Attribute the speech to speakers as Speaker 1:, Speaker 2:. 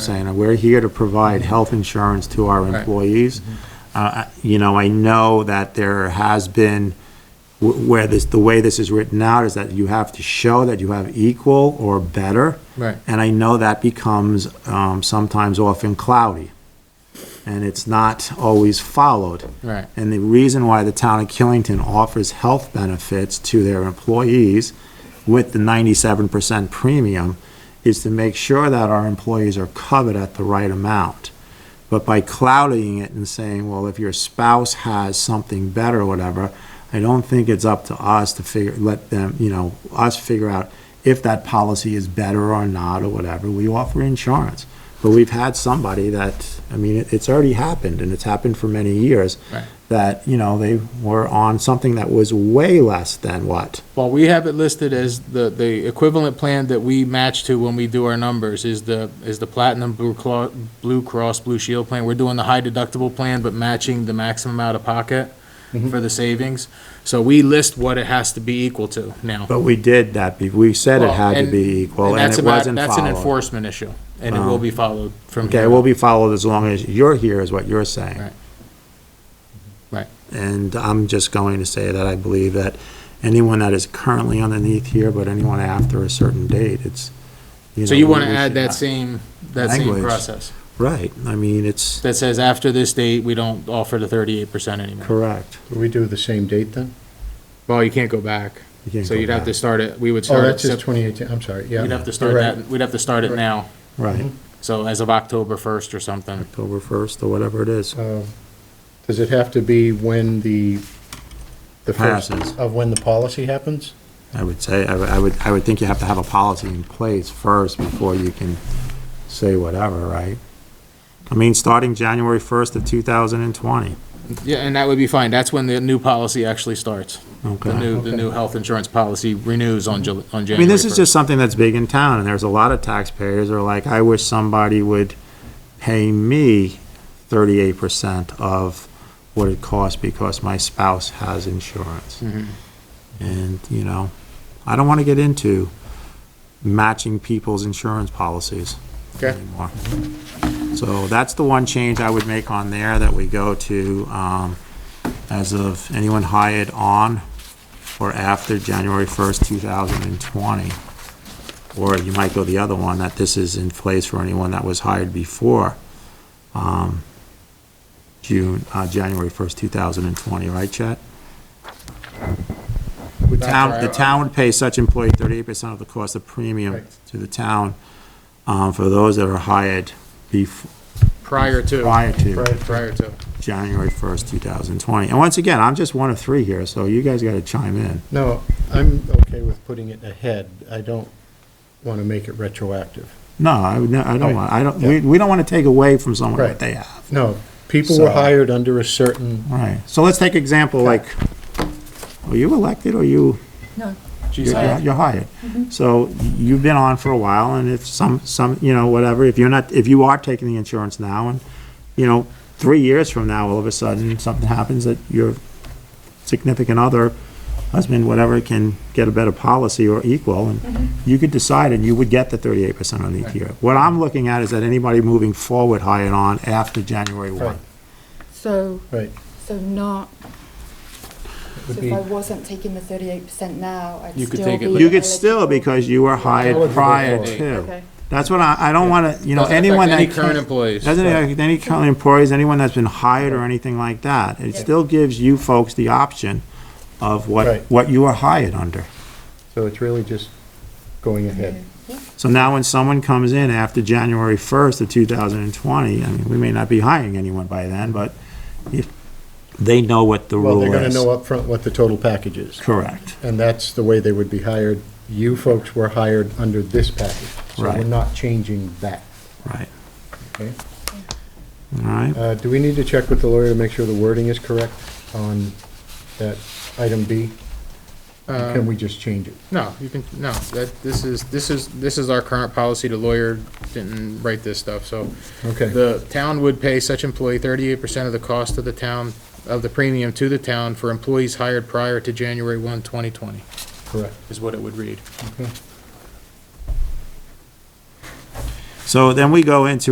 Speaker 1: saying, we're here to provide health insurance to our
Speaker 2: Right.
Speaker 1: employees. Uh, I- You know, I know that there has been, wh- where this, the way this is written out is that you have to show that you have equal or better.
Speaker 2: Right.
Speaker 1: And I know that becomes um, sometimes often cloudy, and it's not always followed.
Speaker 2: Right.
Speaker 1: And the reason why the town of Killington offers health benefits to their employees with the 97% premium is to make sure that our employees are covered at the right amount. But by clouding it and saying, well, if your spouse has something better or whatever, I don't think it's up to us to figure, let them, you know, us figure out if that policy is better or not or whatever. We offer insurance. But we've had somebody that, I mean, it- it's already happened and it's happened for many years.
Speaker 2: Right.
Speaker 1: That, you know, they were on something that was way less than what?
Speaker 2: Well, we have it listed as the, the equivalent plan that we match to when we do our numbers is the, is the Platinum Blue Cross, Blue Cross Blue Shield plan. We're doing the high deductible plan, but matching the maximum out of pocket
Speaker 1: Mm-hmm.
Speaker 2: for the savings. So we list what it has to be equal to now.
Speaker 1: But we did that, be- we said it
Speaker 2: Well,
Speaker 1: had to
Speaker 2: and-
Speaker 1: be equal and
Speaker 2: that's
Speaker 1: it
Speaker 2: about-
Speaker 1: wasn't
Speaker 2: That's an
Speaker 1: followed. Uh,
Speaker 2: enforcement issue, and it will be followed from here.
Speaker 1: Okay, we'll be followed as long as you're here, is what you're saying.
Speaker 2: Right. Right.
Speaker 1: And I'm just going to say that I believe that anyone that is currently underneath here, but anyone after a certain date, it's, you know.
Speaker 2: So you want to
Speaker 1: we
Speaker 2: add
Speaker 1: should-
Speaker 2: that same, that same
Speaker 1: Language.
Speaker 2: process
Speaker 1: Right, I mean, it's
Speaker 2: that says after this date, we don't offer the thirty-eight percent anymore.
Speaker 1: correct.
Speaker 3: Do we do the same date then?
Speaker 2: Well, you can't go back.
Speaker 1: You can't
Speaker 2: So
Speaker 1: go
Speaker 2: you'd have to
Speaker 1: back.
Speaker 2: start it, we would
Speaker 3: Oh,
Speaker 2: start it,
Speaker 3: that's just
Speaker 2: Sep-
Speaker 3: 2018, I'm sorry, yeah.
Speaker 2: we'd have to start
Speaker 3: You're right.
Speaker 2: that, we'd have to start it
Speaker 3: Right.
Speaker 2: now,
Speaker 1: Right,
Speaker 2: so as of October first or something.
Speaker 1: October 1st or whatever it is.
Speaker 3: Um, Does it have to be when the, the first,
Speaker 1: Passes.
Speaker 3: of when the policy happens?
Speaker 1: I would say, I would- I would, I would think you have to have a policy in place first before you can say whatever, right? I mean, starting January 1st of 2020,
Speaker 2: Yeah, and that would be fine, that's when the new policy actually starts. The
Speaker 1: okay?
Speaker 2: new, the new health insurance policy renews on Jul- on January
Speaker 1: I mean, this is
Speaker 2: 1st.
Speaker 1: just something that's big in town, and there's a lot of taxpayers who are like, I wish somebody would pay me thirty-eight percent of what it costs because my spouse has insurance.
Speaker 2: Mm-hmm.
Speaker 1: And, you know, I don't want to get into matching people's insurance policies
Speaker 3: Okay.
Speaker 1: anymore. So that's the one change I would make on there, that we go to, um, as of anyone hired on or after January 1st, 2020. Or you might go the other one, that this is in place for anyone that was hired before um, June, uh, January 1st, 2020, right, Chet? The town, the town would pay such employee 38% of the cost of premium
Speaker 3: Right.
Speaker 1: to the town um, for those that are hired bef-
Speaker 2: Prior to,
Speaker 1: prior to.
Speaker 3: Right.
Speaker 2: prior to.
Speaker 1: January 1st, 2020. And once again, I'm just one of three here, so you guys got to chime in.
Speaker 3: No, I'm okay with putting it ahead. I don't want to make it retroactive.
Speaker 1: No, I would, no, I don't want, I don't,
Speaker 3: Yeah.
Speaker 1: we, we don't want to take away from someone what
Speaker 3: Right.
Speaker 1: they have.
Speaker 3: No, people were
Speaker 1: So-
Speaker 3: hired under a certain,
Speaker 1: Right. So let's take example like, are you elected or you,
Speaker 2: She's
Speaker 1: you're
Speaker 2: hired.
Speaker 1: you're hired? So you've been on for a while and if some, some, you know, whatever, if you're not, if you are taking the insurance now and, you know, three years from now, all of a sudden, something happens that your significant other, husband, whatever, can get a better policy or equal, and you could decide, and you would get the thirty-eight percent on each year. What I'm looking at is that anybody moving forward hired on after January
Speaker 3: Right.
Speaker 1: one.
Speaker 4: So,
Speaker 3: right,
Speaker 4: so not, so
Speaker 3: would
Speaker 4: if
Speaker 3: be,
Speaker 4: I wasn't taking the thirty-eight percent now, I'd
Speaker 2: You could
Speaker 4: still
Speaker 2: take it
Speaker 4: be
Speaker 1: You could still,
Speaker 4: eligible.
Speaker 1: because you were hired
Speaker 3: Eligible
Speaker 1: prior
Speaker 3: for it.
Speaker 1: to.
Speaker 4: Okay.
Speaker 1: That's what I, I don't wanna, you know,
Speaker 2: Doesn't affect
Speaker 1: anyone that.
Speaker 2: Any current
Speaker 1: can't-
Speaker 2: employees.
Speaker 1: Doesn't affect any current employees, anyone that's been hired or anything like that. It still gives you folks the option of what,
Speaker 3: Right.
Speaker 1: what you were hired under.
Speaker 3: so it's really just going ahead.
Speaker 1: So now when someone comes in after January 1st of 2020, I mean, we may not be hiring anyone by then, but if, they know what the
Speaker 3: Well,
Speaker 1: rule is.
Speaker 3: they're going to know upfront what the total package is.
Speaker 1: Correct,
Speaker 3: And that's the way they would be hired. You folks were hired under this package. So we're
Speaker 1: Right.
Speaker 3: not changing that,
Speaker 1: right,
Speaker 3: okay?
Speaker 1: all right.
Speaker 3: Uh, Do we need to check with the lawyer to make sure the wording is correct on that item B? Or Can we just change it?
Speaker 2: No, you can, no, that, this is, this is, this is our current policy, the lawyer didn't write this stuff, so.
Speaker 3: Okay,
Speaker 2: The town would pay such employee thirty-eight percent of the cost of the town, of the premium to the town for employees hired prior to January 1, 2020,
Speaker 3: correct.
Speaker 2: is what it would read.
Speaker 3: Okay.
Speaker 1: So then we go into